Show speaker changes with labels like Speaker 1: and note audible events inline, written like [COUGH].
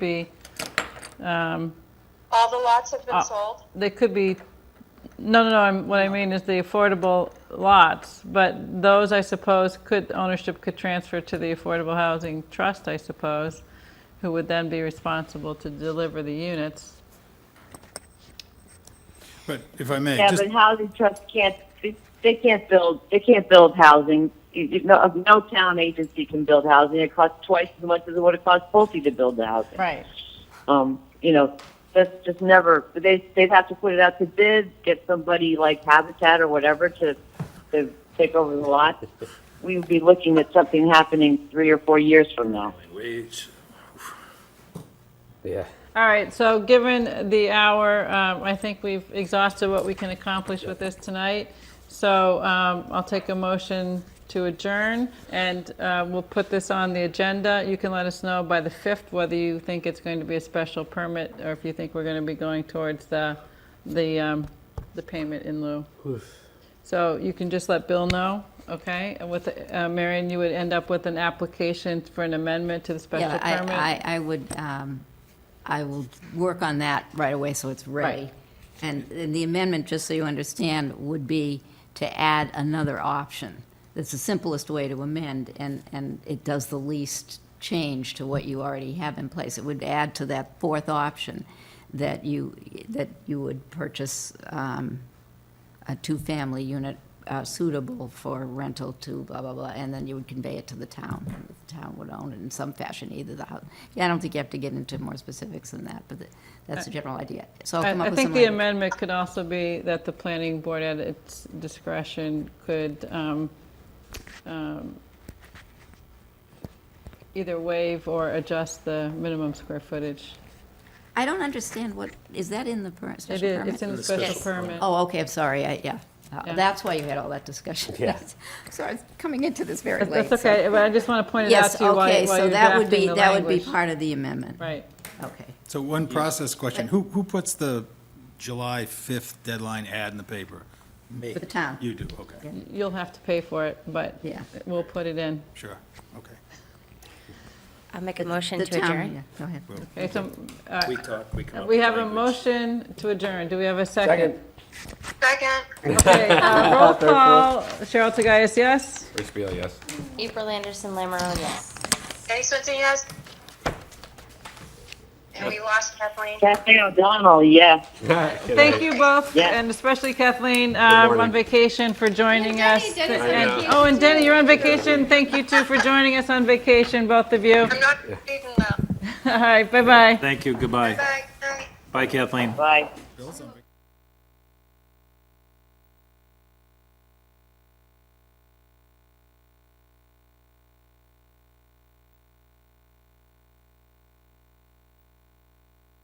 Speaker 1: be, um,
Speaker 2: All the lots have been sold?
Speaker 1: they could be, no, no, no, I'm- what I mean is the affordable lots, but those, I suppose, could, ownership could transfer to the Affordable Housing Trust, I suppose, who would then be responsible to deliver the units.
Speaker 3: But if I may,
Speaker 4: Yeah,
Speaker 3: just,
Speaker 4: but housing trusts can't, they can't build, they can't build housing. You- you- No, no town agency can build housing. It costs twice as much as it would have cost Pulte to build the housing.
Speaker 1: Right.
Speaker 4: Um, you know, that's just never, they, they'd have to put it out to bid, get somebody like Habitat or whatever to, to take over the lot. We would be looking at something happening three or four years from now.
Speaker 5: Wait.
Speaker 6: Yeah.
Speaker 1: All right, so given the hour, um, I think we've exhausted what we can accomplish with this tonight. So um, I'll take a motion to adjourn, and uh, we'll put this on the agenda. You can let us know by the 5th whether you think it's going to be a special permit, or if you think we're going to be going towards the, the, um, the payment in lieu. So you can just let Bill know, okay? And with, uh, Marion, you would end up with an application for an amendment to the special
Speaker 7: Yeah, I-
Speaker 1: permit?
Speaker 7: I, I would, um, I will work on that right away, so it's ready.
Speaker 1: Right.
Speaker 7: And and the amendment, just so you understand, would be to add another option. That's the simplest way to amend, and, and it does the least change to what you already have in place. It would add to that fourth option, that you, that you would purchase um, a two-family unit uh, suitable for rental to blah, blah, blah, and then you would convey it to the town. and The town would own it in some fashion, either the house. Yeah, I don't think you have to get into more specifics than that, but the- that's the general idea. So I'll
Speaker 1: I-
Speaker 7: come up with
Speaker 1: I think
Speaker 7: some.
Speaker 1: the
Speaker 7: language.
Speaker 1: amendment could also be that the planning board at its discretion could um, um, either waive or adjust the minimum square footage.
Speaker 7: I don't understand what, is that in the per-
Speaker 1: It
Speaker 7: special
Speaker 1: is, it's
Speaker 7: permit?
Speaker 1: in the special permit.
Speaker 7: Oh, okay, I'm sorry, I, yeah. Uh,
Speaker 1: Yeah.
Speaker 7: That's why you had all that discussion. [LAUGHS]
Speaker 6: Yeah.
Speaker 7: Sorry, I was coming into this very late.
Speaker 1: That's
Speaker 7: so-
Speaker 1: okay, but I just want to point it out
Speaker 7: Yes,
Speaker 1: to you while
Speaker 7: okay,
Speaker 1: while
Speaker 7: so
Speaker 1: you're
Speaker 7: that would
Speaker 1: drafting
Speaker 7: be,
Speaker 1: the
Speaker 7: that would be
Speaker 1: language.
Speaker 7: part of the amendment.
Speaker 1: Right.
Speaker 7: Okay.
Speaker 3: so one process question. Who, who puts the July 5th deadline ad in the paper? Me.
Speaker 7: For the town.
Speaker 3: You do, okay,
Speaker 1: You'll have to pay for it, but
Speaker 7: Yeah.
Speaker 1: we'll put it in.
Speaker 3: sure, okay.
Speaker 8: I'll make a motion
Speaker 7: The
Speaker 8: to
Speaker 7: town,
Speaker 8: adjourn.
Speaker 7: yeah, Go ahead.
Speaker 1: Okay, so uh,
Speaker 5: We talk, we come up
Speaker 1: we
Speaker 5: with
Speaker 1: have a
Speaker 5: language.
Speaker 1: motion to adjourn. Do we have a second?
Speaker 2: Second.
Speaker 1: Okay, uh, roll call. Cheryl Tagayas, yes?
Speaker 6: Rich Beal, yes.
Speaker 8: April Anderson, Lammerow, yes.
Speaker 2: Denny Swenson, yes? And we lost Kathleen.
Speaker 4: Kathleen O'Donnell, yes.
Speaker 1: Thank you both,
Speaker 4: Yeah.
Speaker 1: and especially Kathleen, uh,
Speaker 6: morning.
Speaker 1: on vacation for joining us.
Speaker 6: on
Speaker 1: And-
Speaker 6: vacation
Speaker 1: Oh, and Denny, you're on vacation. Thank you too for joining us on vacation, both of you. [LAUGHS]
Speaker 2: I'm not reading well.
Speaker 1: All right, bye-bye.
Speaker 9: Thank you, goodbye.
Speaker 2: Bye, bye.
Speaker 9: Bye, Kathleen.
Speaker 4: Bye.
Speaker 3: Bill, something?